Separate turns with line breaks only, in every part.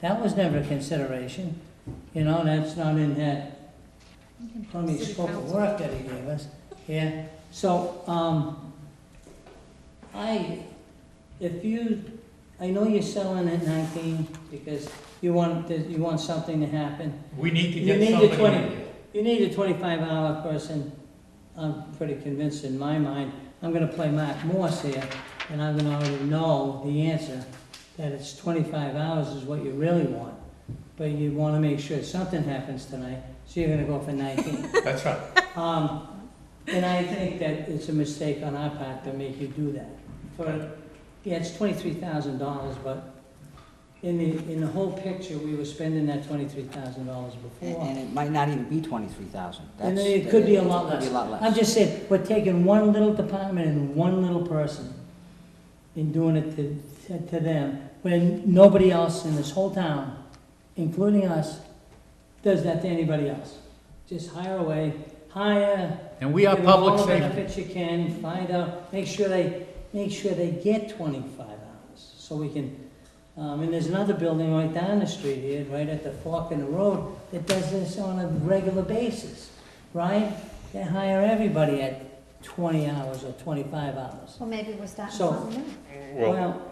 That was never a consideration, you know, that's not in that, crummy
City
scope of
council.
work that he gave us, yeah. So, um, I, if you, I know you're selling at nineteen because you want, to- you want something to happen.
We need to
You
get
need the
somebody in
20.
here.
You need a twenty-five hour person, I'm pretty convinced in my mind, I'm gonna play Mark Morse here, and I'm gonna already know the answer, that it's twenty-five hours is what you really want. But you wanna make sure something happens tonight, so you're gonna go for nineteen.
That's right.
Um, and I think that it's a mistake on our part to make you do that. For, yeah, it's twenty-three thousand dollars, but in the, in the whole picture, we were spending that twenty-three thousand dollars
And,
before.
and it might not even be twenty-three thousand.
And then it could be a lot
Could
less.
be a lot less.
I'm just saying, we're taking one little department and one little person and doing it to, to- to them, when nobody else in this whole town, including us, does that to anybody else. Just hire away, hire,
And we are
Give them
public
All the
safety.
benefits you can, find out, make sure they, make sure they get twenty-five hours, so we can, um, and there's another building right down the street here, right at the fork in the road, that does this on a regular basis, right? They hire everybody at twenty hours or twenty-five hours.
Well, maybe we're starting
So-
something new.
Well,
Well,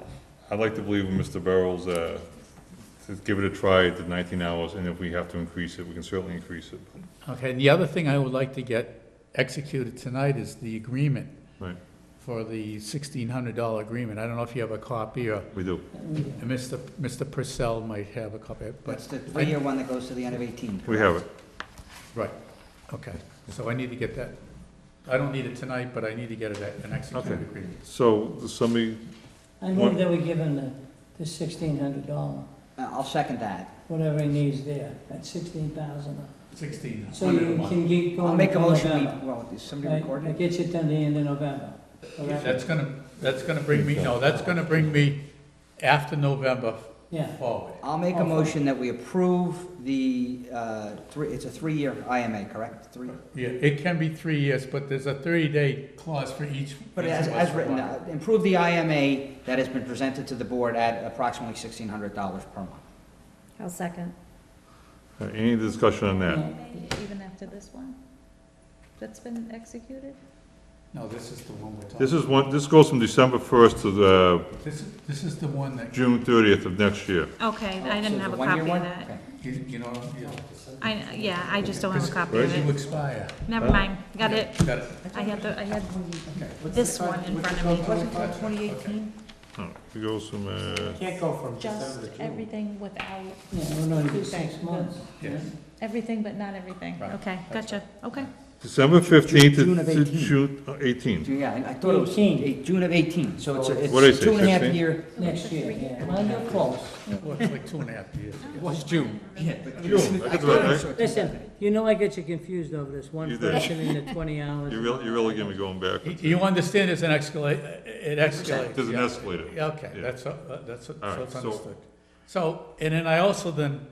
I'd like to believe in Mr. Barrows, uh, to give it a try at the nineteen hours, and if we have to increase it, we can certainly increase it.
Okay, and the other thing I would like to get executed tonight is the agreement
Right,
for the sixteen hundred dollar agreement. I don't know if you have a copy or
we do.
Mr. Mr. Purcell might have a copy,
That's
but,
the three-year one that goes to the end of eighteen.
We have it.
right, okay. So I need to get that, I don't need it tonight, but I need to get it at an executed
Okay.
agreement.
So, does somebody,
I move that we give him the, the sixteen hundred dollar,
Uh, I'll second that.
whatever he needs there, at sixteen thousand.
Sixteen
So
hundred a
you
month.
can get going.
I'll make a
until
motion, we,
November,
well, is somebody
Right,
recording?
That gets you to the end of November. correct?
That's gonna, that's gonna bring me, no, that's gonna bring me after November
Yeah.
forward.
I'll make
Oh,
a
fine.
motion that we approve the, uh, three, it's a three-year IMA, correct? Three,
Yeah, it can be three years, but there's a thirty-day clause for each.
but
each
as,
of
as
us.
written, uh, improve the IMA that has been presented to the board at approximately sixteen hundred dollars per month.
I'll second.
uh, any discussion on that?
Even after this one? That's been executed?
No, this is the one we're talking.
This is one, this goes from December first to the
This, this is the one that, you,
June thirtieth of next year.
Okay, I
Oh,
didn't
so
have a
it's one-year
copy of
one?
that.
Okay.
you know, yeah.
I, yeah, I just don't have a
Because-
copy of
Right.
you
it.
expire.
Never mind, got it.
Got it.
I had the, I had
Okay.
this one in front of me.
Wasn't all twenty eighteen?
Oh, It goes from, uh,
Can't go from December to
Just
June.
everything without,
Yeah, we're not even six
Thanks.
months.
Yes.
everything but not everything.
Right,
Okay,
that's
gotcha, okay.
December fifteenth
June
to
of
to
18.
June uh, eighteen.
June, yeah, I- I thought it was
18.
eight- June of eighteen, so it's, a-
What did I
it's
say,
two and a half
15?
year.
Next year, yeah. Well, you're close.
Well, it's like two and a half years.
It was June. Yeah.
June, I got that right.
Listen, you know I get you confused over this one
You did.
person in the twenty hours.
You really, you really get me going
You-
backwards.
You understand it's an escalate, it escalates.
There's an
yeah.
escalator.
Yeah, Okay,
Yeah.
that's, uh, that's, so
All right,
it's
so-
understood. So, and then I also then,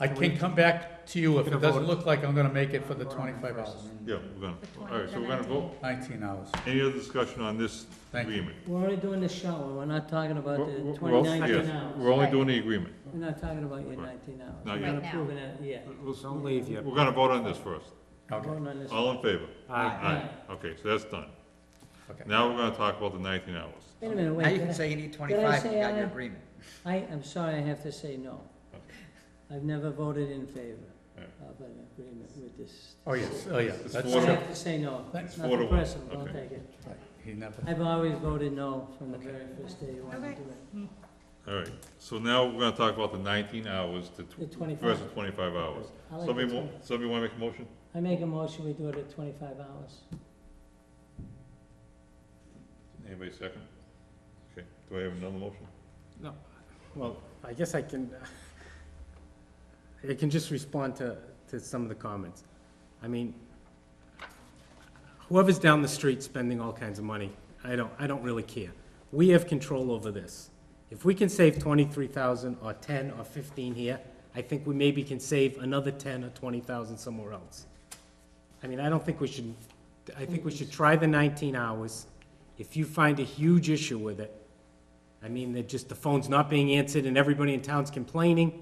I can come back to you if it doesn't look like I'm gonna make it for the twenty-five hours,
Yeah, we're gonna, all right, so we're gonna vote.
nineteen hours.
Any other discussion on this
Thank you.
agreement?
We're only doing the shower, we're not talking about
We're-
the
we're-
twenty
yes,
nineteen
We're
hours.
only doing the agreement.
We're not talking about your
Right.
nineteen hours.
Not
We're
yet.
not
Right
approving it yet.
Don't leave yet.
We're gonna vote on this first.
We're
Okay,
voting on this.
All in favor?
Aye.
Aye.
Okay, so that's done.
okay.
Now we're gonna talk about the nineteen hours.
Wait a minute,
Now you
wait,
can
did
say you need twenty-five, you
say
got
aye?
your agreement.
I, I, am sorry, I have to say no. I've never voted in favor
Yeah.
of an agreement with this.
Oh, yes, oh, yeah.
It's
That's
I
Four to-
have to say no,
It's
not
four to one.
impressive, I'll
Okay.
take it.
right. He never,
I've always voted no from the very first day you wanted to do it.
All right, so now we're gonna talk about the nineteen hours to
The
tw-
25.
versus twenty-five hours.
I like
Somebody,
the
mo- somebody wanna make a motion?
I make a motion, we do it at twenty-five hours.
Anybody second? Okay, do I have another motion?
No, well, I guess I can, I can just respond to, to some of the comments. I mean, whoever's down the street spending all kinds of money, I don't, I don't really care. We have control over this. If we can save twenty-three thousand or ten or fifteen here, I think we maybe can save another ten or twenty thousand somewhere else. I mean, I don't think we should, I think we should try the nineteen hours. If you find a huge issue with it, I mean, that just the phone's not being answered and everybody in town's complaining.